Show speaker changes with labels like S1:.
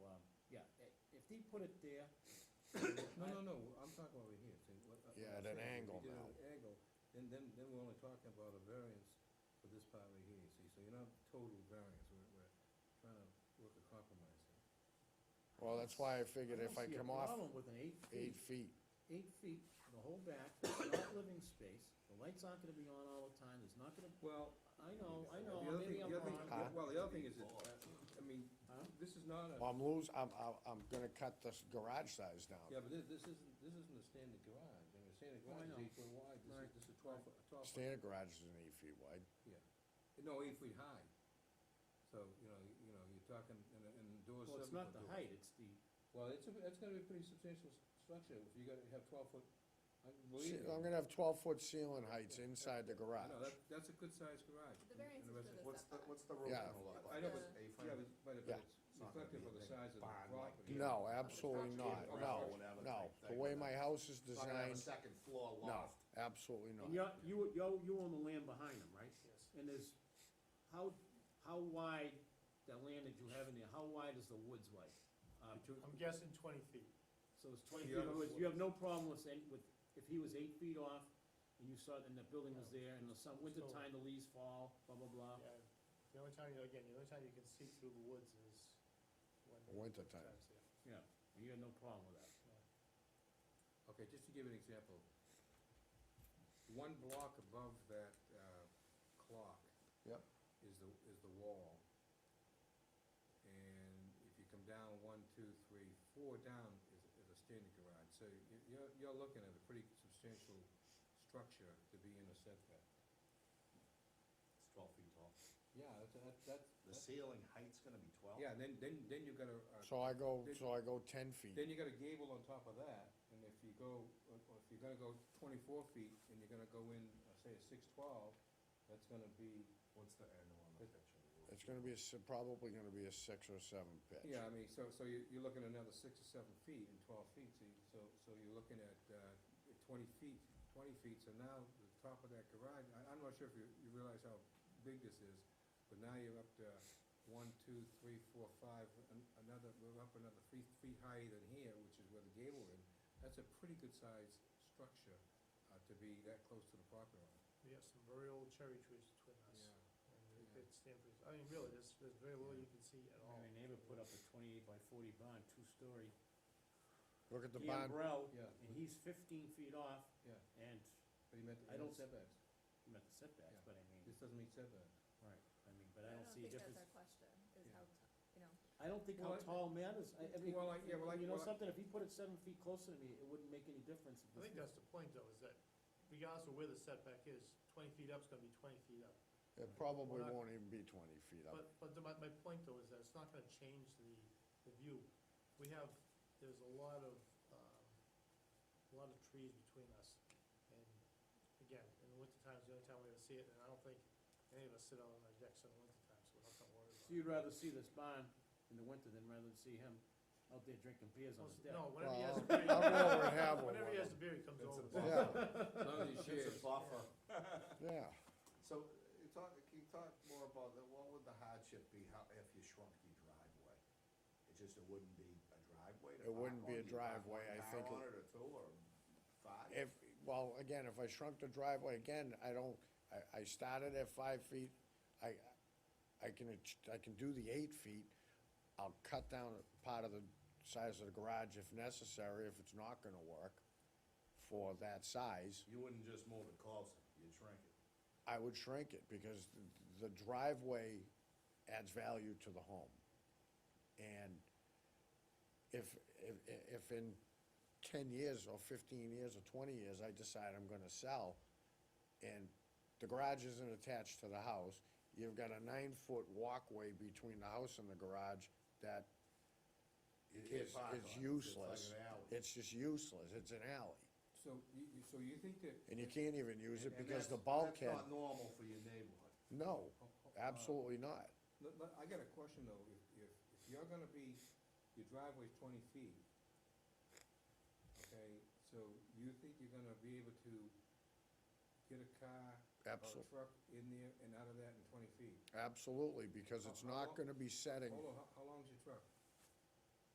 S1: Um, put it there. No, no, no, I'm talking over here, see, what. I-
S2: Yeah,
S1: I'm
S2: at an
S1: saying, if
S2: angle
S1: you did it
S2: now.
S1: at an Angle, then, then, then we're only talking about a variance for this part right here, you see, so you're not total variance, we're, we're trying to work a compromise here.
S2: Well, that's why I figured if I
S1: don't see a
S2: come off
S1: Problem with an eight feet,
S2: eight feet,
S1: eight feet, the whole back, it's not living space, the lights aren't gonna be on all the time, there's not gonna,
S3: Well,
S1: I know, I
S3: the
S1: know,
S3: other
S1: maybe
S3: thing,
S1: I'm
S3: the other thing,
S1: wrong.
S2: Huh?
S3: well, the other thing is, that, uh, I mean,
S1: Huh?
S3: this is not a,
S2: well, I'm lose, I'm, I'm, I'm gonna cut this garage size down.
S1: Yeah, but this, this isn't, this isn't a standard garage, I mean, a standard
S3: Oh, I
S1: garage is
S3: know.
S1: eight foot wide, this
S3: Right,
S1: is, this is twelve foot, twelve foot,
S2: Standard garage is an eight feet wide.
S3: no, eight feet high.
S1: so, you know, you you know, you're talking, and, and the door's
S4: Well, it's
S1: seven foot door.
S4: not the height, it's the,
S1: Well, it's, a- it's gonna be a pretty substantial s- structure, if you gotta have twelve foot, I
S2: See,
S1: believe me.
S2: I'm gonna have twelve foot ceiling heights inside the
S1: I
S2: garage.
S1: know, that, that's a good sized garage.
S5: The
S1: in-
S5: variance
S1: in a
S5: is
S1: resi-
S5: for the
S4: what's the,
S5: setback.
S4: what's the roof
S2: Yeah.
S4: gonna look
S1: I
S4: like?
S1: know,
S4: Just
S5: but-
S4: A-frame?
S1: Yeah, but, but if
S2: Yeah.
S1: it's
S4: It's not gonna
S1: reflective
S4: be
S1: of
S4: a
S1: the
S4: big
S1: size of the
S4: barn like
S1: property.
S4: you
S2: No, absolutely not,
S4: Or
S2: no,
S4: whatever
S2: no.
S4: type
S2: The
S4: thing,
S2: way
S4: but
S2: my house is
S4: It's not gonna have a
S2: designed,
S4: second floor
S2: no,
S4: loft.
S2: absolutely
S4: And
S2: not.
S4: you're, you, you, you own the land behind them, right? Yes. And there's, how, how wide, that land that you have in there, how wide is the woods like?
S1: Um,
S4: Uh,
S6: I'm guessing twenty feet.
S4: So it's twenty feet, in
S1: The
S4: other
S1: other
S4: words,
S1: floor.
S4: you have no problem with, any- with, if he was eight feet off, and you saw, and the building was there, and the sun, winter
S6: Still-
S4: time, the leaves fall, blah, blah, blah.
S6: Yeah, the only time, you again, the only time you can see through the woods is when. the
S2: Winter time.
S6: time's there.
S4: And you had no problem with that.
S1: Okay, just to give you an example, one block above that, uh, clock.
S2: Yep.
S1: Is the, is the wall. And if you come down one, two, three, four down is, is a standard garage, so you- you're, you're looking at a pretty substantial structure to be in a setback.
S4: It's twelve feet tall.
S1: Yeah, that's, that's, that's.
S4: The ceiling height's gonna be twelve?
S1: Yeah, then, then, then you got a, a
S2: So I go,
S1: Did-
S2: so I go ten feet.
S1: Then you got a gable on top of that, and if you go, or or if you're gonna go twenty-four feet, and you're gonna go in, uh, say, a six-twelve, that's gonna be,
S4: What's the angle on
S1: the
S4: picture?
S2: It's gonna be, a s- probably gonna be a six or seven pitch.
S1: yeah, I mean, so, so you're, you're looking at another six or seven feet and twelve feet, so, you- so, so you're looking at, uh, twenty feet, twenty feet, so now, the top of that garage, I, I'm not sure if you, you realize how big this is, but now you're up to one, two, three, four, five, an- another, we're up another three feet higher than here, which is where the gable is. That's a pretty good sized structure, uh, to be that close to the property line.
S6: We have some very old cherry trees between us, and they
S1: Yeah.
S6: could stand for, I mean, really, there's, there's very little you can see at all.
S4: My neighbor put up a twenty-eight by forty barn, two-story,
S2: Look at the barn,
S4: gambrel,
S1: Yeah,
S4: and he's fifteen feet off,
S1: yeah,
S4: and
S1: but he meant, he
S4: I don't-
S1: meant setbacks,
S4: you met the setbacks,
S1: Yeah.
S4: but I mean,
S1: this doesn't mean setbacks.
S4: right, I mean, but I don't see a
S5: think
S4: difference.
S5: that's our question, is
S1: Yeah.
S5: how, t- you know,
S4: I don't think
S1: Well,
S4: how
S1: I-
S4: tall matters, I, I mean,
S1: Well, I- yeah, well, I-
S4: you know
S1: well, I-
S4: something, if he put it seven feet closer to me, it wouldn't make any difference.
S6: I think that's the point, though, is that regardless of where the setback is, twenty feet up's gonna be twenty feet up.
S2: it probably
S6: We're not-
S2: won't even be twenty feet up.
S6: But, but the- my, my point though is that it's not gonna change the, the view. We have, there's a lot of, um, a lot of trees between us. And again, in the winter times, the only time we ever see it, and I don't think any of us sit out on our decks in the winter time, so we're not gonna worry about
S4: So
S6: it.
S4: you'd rather see this barn in the winter than rather than see him out there drinking beers on
S6: Well,
S4: his deck?
S6: No, whenever
S2: Well,
S6: he has a
S2: I'll
S6: beer,
S2: I'll go over and have one.
S6: whenever he has a beer, he comes
S4: It's
S6: over.
S4: a
S6: so-
S2: Yeah,
S4: Oh,
S1: As long as he
S4: a
S1: shares.
S4: buffer.
S2: yeah.
S7: So, you talk, can you talk more about that, what would the hardship be, how, if you shrunk your driveway? It just, it wouldn't be a driveway to
S2: It wouldn't
S7: park
S2: be
S7: on,
S2: a
S7: you park
S2: driveway,
S7: one
S2: I
S7: car
S2: think
S7: on
S2: it-
S7: it or two or five?
S2: If, well, again, if I shrunk the driveway again, I don't, I, I started at five feet. I, I can, ach- I can do the eight feet. I'll cut down a part of the size of the garage if necessary, if it's not gonna work for that size.
S7: You wouldn't just move it closer, you'd shrink it.
S2: I would shrink it because the driveway adds value to the home. And if, if, if in ten years or fifteen years or twenty years, I decide I'm gonna sell and the garage isn't attached to the house, you've got a nine-foot walkway between the house and the garage that
S7: You
S2: is,
S7: can't park on it.
S2: is
S7: It's like
S2: useless.
S7: an alley.
S2: It's just useless. It's an alley.
S1: So you, you, so you think that.
S2: And you can't even use it
S7: And
S2: because the
S7: that's- that's
S2: bulkhead,
S7: not normal for your neighborhood.
S2: no,
S1: Ho- ho- uh,
S2: absolutely not.
S1: Look, look, I got a question though, if, if, if you're gonna be, your driveway's twenty feet, okay, so you think you're gonna be able to get a car or a
S2: Absolutely,
S1: truck in there and out of that in twenty feet?
S2: absolutely, because it's
S1: How- how
S2: not
S1: long-
S7: Uh-huh.
S2: gonna be setting,
S1: Hold on, how, how long's your truck?